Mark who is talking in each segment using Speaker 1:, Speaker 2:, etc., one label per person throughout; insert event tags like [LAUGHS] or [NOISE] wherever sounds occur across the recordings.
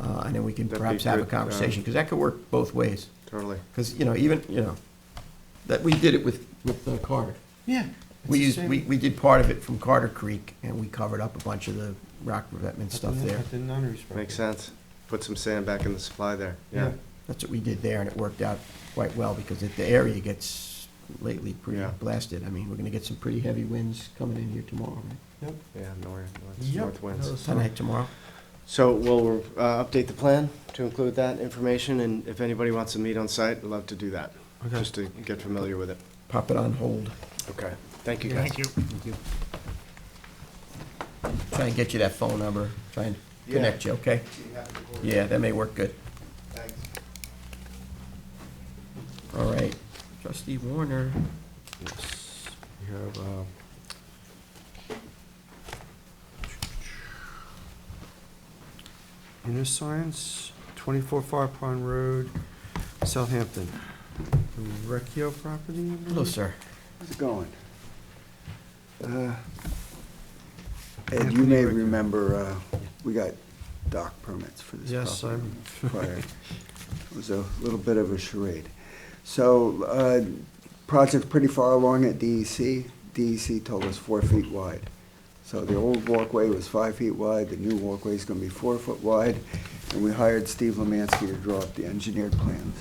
Speaker 1: Uh, and then we can
Speaker 2: That'd be
Speaker 1: perhaps have a
Speaker 2: good, uh,
Speaker 1: conversation, because that could work both ways.
Speaker 2: Totally.
Speaker 1: Because, you know, even, you know, that, we did it with, with uh, Carter.
Speaker 3: Yeah.
Speaker 1: We used, we, we did part of it from Carter Creek, and we covered up a bunch of the rock revetment stuff there.
Speaker 3: The nunnery's property.
Speaker 2: Makes sense. Put some sand back in the supply there. Yeah.
Speaker 1: That's what we did there, and it worked out quite well, because if the area gets lately pretty
Speaker 2: Yeah.
Speaker 1: blasted, I mean, we're gonna get some pretty heavy winds coming in here tomorrow, right?
Speaker 3: Yep.
Speaker 2: Yeah, north, north-
Speaker 3: Yep.
Speaker 2: north winds.
Speaker 1: Tonight, tomorrow?
Speaker 2: So we'll uh, update the plan to include that information, and if anybody wants to meet on site, I'd love to do that,
Speaker 3: Okay.
Speaker 2: just to get familiar with it.
Speaker 1: Pop it on hold.
Speaker 2: Okay. Thank you, guys.
Speaker 4: you.
Speaker 1: Try and get you that phone number, try and connect you, okay? Yeah, that may work good.
Speaker 2: Thanks.
Speaker 1: All right. Trustee Warner.
Speaker 2: We have,
Speaker 3: uh,
Speaker 2: um,
Speaker 3: Innoscience, 24 Far Pond Road, Southampton. The Recchio property?
Speaker 1: Hello, sir.
Speaker 5: How's it going? Uh,
Speaker 3: Yeah,
Speaker 5: Ed, you may
Speaker 3: pretty regular.
Speaker 5: remember, uh, we got dock permits for this
Speaker 3: Yes,
Speaker 5: property.
Speaker 3: I'm- [LAUGHS]
Speaker 5: prior. It was a little bit of a charade. So, uh, project's pretty far along at E DEC. DEC told us four feet wide. So the old walkway was five feet wide, the new walkway's gonna be four foot wide, and we hired Steve Lemansky to draw up the engineered plans.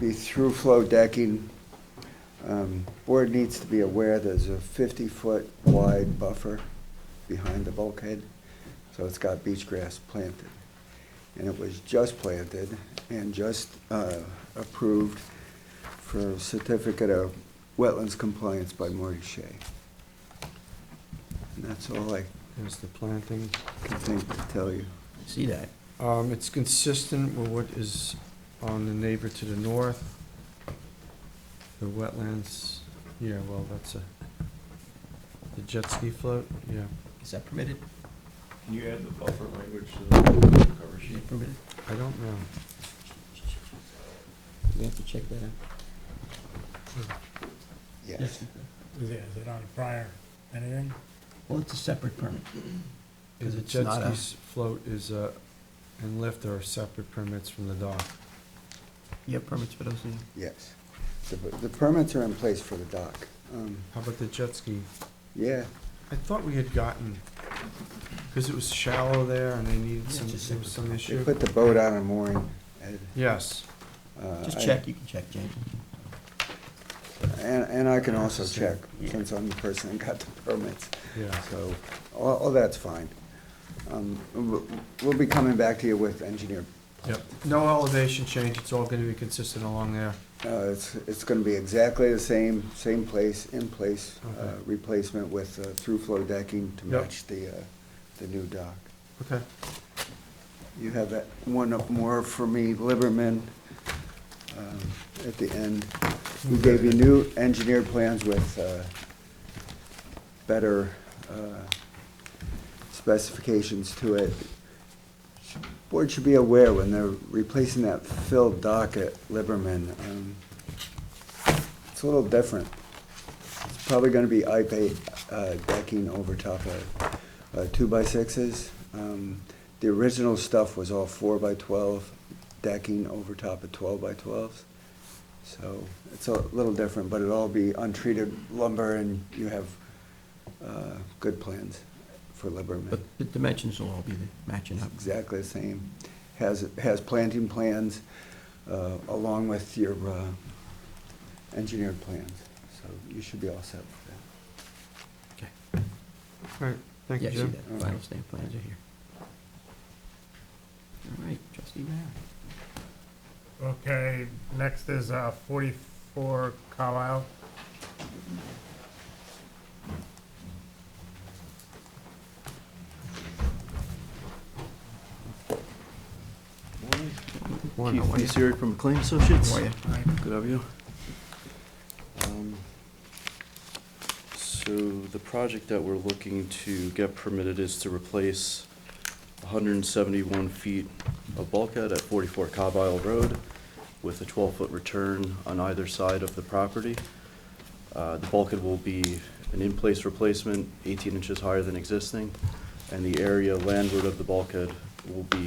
Speaker 5: Be through flow decking. Um, Board needs to be aware there's a fifty-foot wide buffer behind the bulkhead, so it's got beach grass planted. And it was just planted and just uh, approved for certificate of wetlands compliance by Marty Shea. And that's all I
Speaker 3: There's the planting.
Speaker 5: can think to tell you.
Speaker 1: See that?
Speaker 3: Um, It's consistent with what is on the neighbor to the north. The wetlands, yeah, well, that's a, the jet ski float, yeah.
Speaker 1: Is that permitted?
Speaker 4: Can you add the buffer language to the cover
Speaker 1: Is
Speaker 4: sheet?
Speaker 1: that permitted?
Speaker 3: I don't know.
Speaker 1: We have to check that out.
Speaker 5: Yes.
Speaker 4: Is it, is it on prior, anything?
Speaker 1: Well, it's a separate permit.
Speaker 3: Yeah,
Speaker 1: 'Cause
Speaker 3: The
Speaker 1: it's
Speaker 3: jet
Speaker 1: not
Speaker 3: ski
Speaker 1: a-
Speaker 3: s- float is, uh, and lift are separate permits from the dock.
Speaker 1: You have permits for those things?
Speaker 5: Yes. The the permits are in place for the dock. Um,
Speaker 3: How about the jet ski?
Speaker 5: Yeah,
Speaker 3: I thought we had gotten, because it was shallow there and they needed
Speaker 1: Yeah,
Speaker 3: some,
Speaker 1: just
Speaker 3: there was some
Speaker 5: they
Speaker 3: issue.
Speaker 5: put the boat on a mooring. Ed.
Speaker 3: Yes,
Speaker 5: Uh,
Speaker 1: Just
Speaker 5: I-
Speaker 1: check, you can check, James.
Speaker 5: And and I can also
Speaker 3: Same.
Speaker 5: check,
Speaker 1: Yeah.
Speaker 5: since I'm the person that got the permits.
Speaker 3: yeah.
Speaker 5: So, all, all that's fine. Um, we'll- We'll be coming back to you with engineer.
Speaker 3: Yep. No elevation change, it's all gonna be consistent along there.
Speaker 5: Uh, It's, it's going to be exactly the same, same place, in place, uh,
Speaker 3: Okay.
Speaker 5: replacement with uh, through flow decking to
Speaker 3: Yep.
Speaker 5: match the, uh, the new dock.
Speaker 3: Okay.
Speaker 5: You have that one up more for me, Liberman, um, at the end. We gave you new engineered plans with uh, better uh, specifications to it. Board should be aware when they're replacing that filled dock at Liberman, um, it's a little different. It's probably gonna be IPA uh, decking over top of uh, two-by-sixes. Um, The original stuff was all four-by-twelve decking over top of twelve-by-twelves. So it's a little different, but it'll all be untreated lumber and you have uh, good plans for Liberman.
Speaker 1: But the dimensions will all be the- matching up.
Speaker 5: Exactly the same. Has, has planting plans uh, along with your uh, engineered plans. So you should be all set with that.
Speaker 1: Okay.
Speaker 3: All right, thank you,
Speaker 1: Yeah, see
Speaker 3: Jim.
Speaker 1: that, final stamp plans are here. All right, trustee Mayor.
Speaker 4: Okay, next is uh, 44 Carlisle.
Speaker 3: One,
Speaker 1: How are you?
Speaker 6: Keith Fitzgerald from McLean Associates.
Speaker 1: How are you?
Speaker 6: Good, how are you? Um, So the project that we're looking to get permitted is to replace 171 feet of bulkhead at 44 Cobb Isle Road with a 12-foot return on either side of the property. Uh, The bulkhead will be an in-place replacement, 18 inches higher than existing, and the area landward of the bulkhead will be